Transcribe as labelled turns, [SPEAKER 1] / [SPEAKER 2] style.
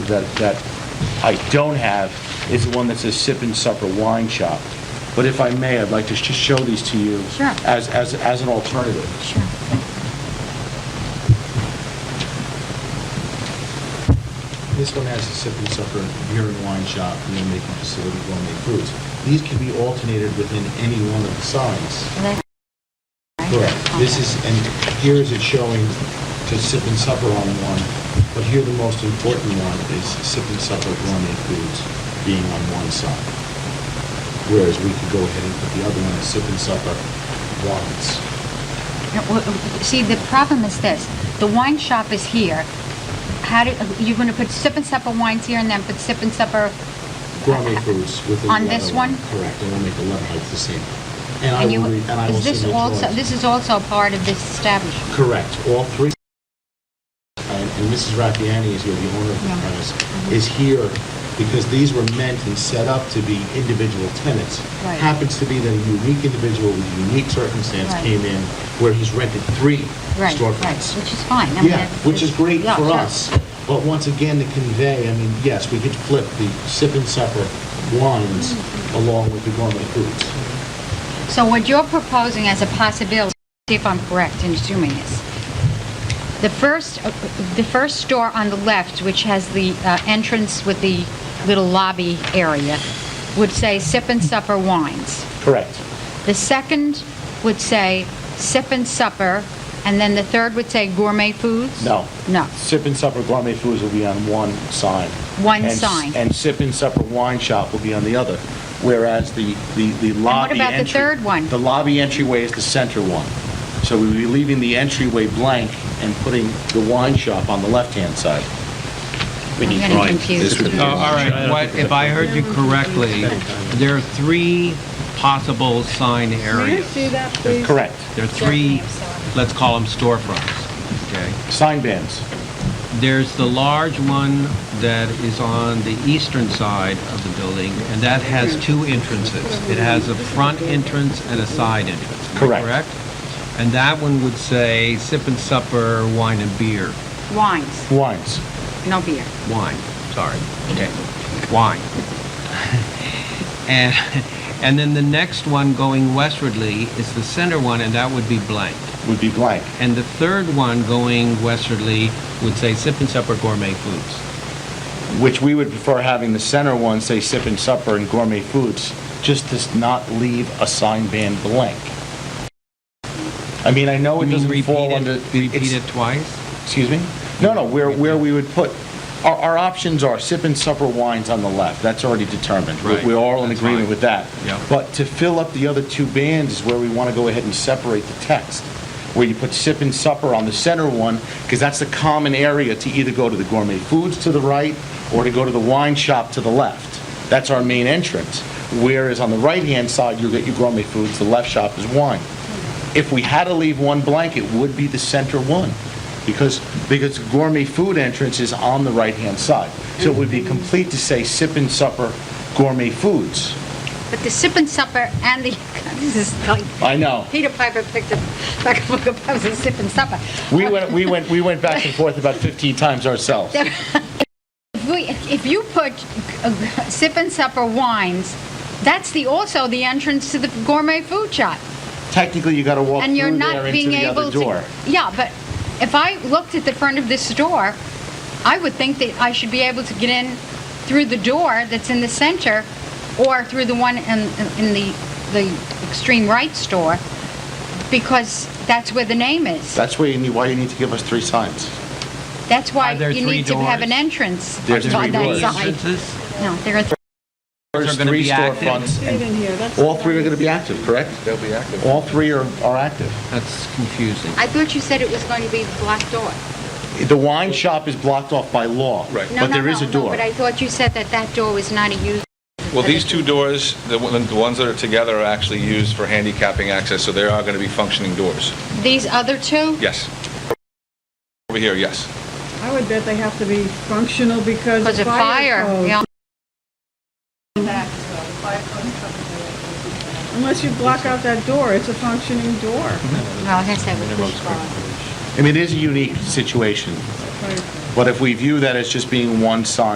[SPEAKER 1] that, that I don't have is the one that says Sip and Supper Wine Shop. But if I may, I'd like to sh- show these to you
[SPEAKER 2] Sure.
[SPEAKER 1] as, as, as an alternative.
[SPEAKER 2] Sure.
[SPEAKER 1] This one has a sip and supper beer and wine shop, meal making facility, gourmet foods. These can be alternated within any one of the signs.
[SPEAKER 2] And that-
[SPEAKER 1] Correct. This is, and here is it showing to sip and supper on one, but here the most important one is sip and supper gourmet foods being on one side. Whereas we could go ahead and put the other one as sip and supper wines.
[SPEAKER 2] No, w- w- See, the problem is this, the wine shop is here. How do, you're gonna put sip and supper wines here and then put sip and supper,
[SPEAKER 1] Gourmet foods within the
[SPEAKER 2] On
[SPEAKER 1] other
[SPEAKER 2] this one?
[SPEAKER 1] Correct, and we'll make the letter height the same. And I
[SPEAKER 2] and you,
[SPEAKER 1] will, re- and I will
[SPEAKER 2] is this
[SPEAKER 1] send it to
[SPEAKER 2] also,
[SPEAKER 1] Lawrence.
[SPEAKER 2] this is also part of this establishment?
[SPEAKER 1] Correct, all three. And and Mrs. Raffiani is here, the owner of the
[SPEAKER 2] Yeah. Mm-hmm.
[SPEAKER 1] premise, is here because these were meant and set up to be individual tenants.
[SPEAKER 2] Right.
[SPEAKER 1] Happens to be that a unique individual with a unique circumstance
[SPEAKER 2] Right.
[SPEAKER 1] came in where he's rented three
[SPEAKER 2] Right, right,
[SPEAKER 1] storefronts.
[SPEAKER 2] which is fine. I mean,
[SPEAKER 1] Yeah,
[SPEAKER 2] that's-
[SPEAKER 1] which is great
[SPEAKER 2] yeah,
[SPEAKER 1] for
[SPEAKER 2] sure.
[SPEAKER 1] us. But once again, to convey, I mean, yes, we could flip the sip and supper wines
[SPEAKER 2] Mm-hmm.
[SPEAKER 1] along with the gourmet foods.
[SPEAKER 2] So what you're proposing as a possibility, see if I'm correct in assuming this, the first, the first store on the left, which has the uh, entrance with the little lobby area, would say Sip and Supper Wines.
[SPEAKER 1] Correct.
[SPEAKER 2] The second would say Sip and Supper, and then the third would say Gourmet Foods?
[SPEAKER 1] No.
[SPEAKER 2] No.
[SPEAKER 1] Sip and Supper Gourmet Foods will be on one sign.
[SPEAKER 2] One
[SPEAKER 1] And s-
[SPEAKER 2] sign.
[SPEAKER 1] And Sip and Supper Wine Shop will be on the other, whereas the, the the lobby entry...
[SPEAKER 2] about the third one?
[SPEAKER 1] The lobby entryway is the center one. So we would be leaving the entryway blank and putting the wine shop on the left-hand side.
[SPEAKER 2] I'm getting confused.
[SPEAKER 3] Oh, All right, what, if I heard you correctly, there are three possible sign areas.
[SPEAKER 4] that, please?
[SPEAKER 1] Correct.
[SPEAKER 3] There are three, let's call them storefronts, okay?
[SPEAKER 1] Sign bands.
[SPEAKER 3] There's the large one that is on the eastern side of the building, and that has two entrances. It has a front entrance and a side entrance. Am I
[SPEAKER 1] Correct.
[SPEAKER 3] Correct? And that one would say sip and supper, wine and beer.
[SPEAKER 2] Wines,
[SPEAKER 1] Wines.
[SPEAKER 2] no beer.
[SPEAKER 3] Wine, sorry. Okay, wine. And, and then the next one going westwardly is the center one, and that would be blank.
[SPEAKER 1] would be blank.
[SPEAKER 3] And the third one going westwardly would say sip and supper gourmet foods.
[SPEAKER 1] which we would prefer having the center one say sip and supper and gourmet foods, just to s- not leave a sign band blank. I mean, I know it
[SPEAKER 3] You mean
[SPEAKER 1] doesn't fall
[SPEAKER 3] repeat it-
[SPEAKER 1] under.
[SPEAKER 3] Repeat
[SPEAKER 1] it's-
[SPEAKER 3] it twice?
[SPEAKER 1] Excuse me? No, no, where, where we would put, our, our options are sip and supper wines on the left, that's already determined. We-
[SPEAKER 3] Right,
[SPEAKER 1] We're all in
[SPEAKER 3] that's
[SPEAKER 1] agreement
[SPEAKER 3] fine.
[SPEAKER 1] with that.
[SPEAKER 3] Yeah.
[SPEAKER 1] But to fill up the other two bands is where we want to go ahead and separate the text, where you put sip and supper on the center one, because that's the common area to either go to the gourmet foods to the right, or to go to the wine shop to the left. That's our main entrance. Whereas on the right-hand side, you'll get your gourmet foods, the left shop is wine if we had to leave one blank, it would be the center one, because, because gourmet food entrance is on the right-hand side. So it would be complete to say sip and supper gourmet foods.
[SPEAKER 2] But the Sip and Supper and the, this is like
[SPEAKER 1] I know.
[SPEAKER 2] Peter Piper picked up like a book of poems and sip and supper.
[SPEAKER 1] We went, we went, we went back and forth about 15 times ourselves.
[SPEAKER 2] If, we, if you put uh, sip and supper wines, that's the also the entrance to the gourmet food shop,
[SPEAKER 1] Technically, you gotta walk
[SPEAKER 2] and
[SPEAKER 1] through
[SPEAKER 2] you're
[SPEAKER 1] there
[SPEAKER 2] not
[SPEAKER 1] into
[SPEAKER 2] being
[SPEAKER 1] the
[SPEAKER 2] able
[SPEAKER 1] other door.
[SPEAKER 2] to. Yeah, but if I looked at the front of this door, I would think that I should be able to get in through the door that's in the center, or through the one in, in the the extreme right store, because that's where the name is.
[SPEAKER 1] That's where you need, why you need to give us three signs.
[SPEAKER 2] That's why
[SPEAKER 3] Are there
[SPEAKER 2] you
[SPEAKER 3] three
[SPEAKER 2] need to have an
[SPEAKER 3] doors?
[SPEAKER 2] entrance
[SPEAKER 1] There's three
[SPEAKER 2] on that
[SPEAKER 1] doors.
[SPEAKER 2] side.
[SPEAKER 3] Entrances?
[SPEAKER 2] No, there are three.
[SPEAKER 1] There's
[SPEAKER 3] Those are gonna
[SPEAKER 1] three
[SPEAKER 3] be active.
[SPEAKER 1] storefronts,
[SPEAKER 4] Get
[SPEAKER 1] and
[SPEAKER 4] in here, that's.
[SPEAKER 1] all three are gonna be active, correct?
[SPEAKER 5] They'll be active.
[SPEAKER 1] All three are, are active.
[SPEAKER 3] That's confusing.
[SPEAKER 2] I thought you said it was going to be the black door.
[SPEAKER 1] The wine shop is blocked off by law,
[SPEAKER 5] Right.
[SPEAKER 2] No,
[SPEAKER 1] but
[SPEAKER 2] no,
[SPEAKER 1] there is
[SPEAKER 2] no,
[SPEAKER 1] a
[SPEAKER 2] no,
[SPEAKER 1] door.
[SPEAKER 2] but I thought you said that that door was not a use.
[SPEAKER 5] Well, these two doors, the one- the ones that are together are actually used for handicapping access, so they are going to be functioning doors.
[SPEAKER 2] These other two?
[SPEAKER 5] Yes. Over here, yes.
[SPEAKER 4] I would bet they have to be functional because
[SPEAKER 2] Because of fire.
[SPEAKER 4] code.
[SPEAKER 2] yeah.
[SPEAKER 4] Unless you block out that door, it's a functioning door.
[SPEAKER 2] Well, I guess that would be
[SPEAKER 1] I mean, it is a unique situation,
[SPEAKER 4] Right.
[SPEAKER 1] but if we view that as just being one sign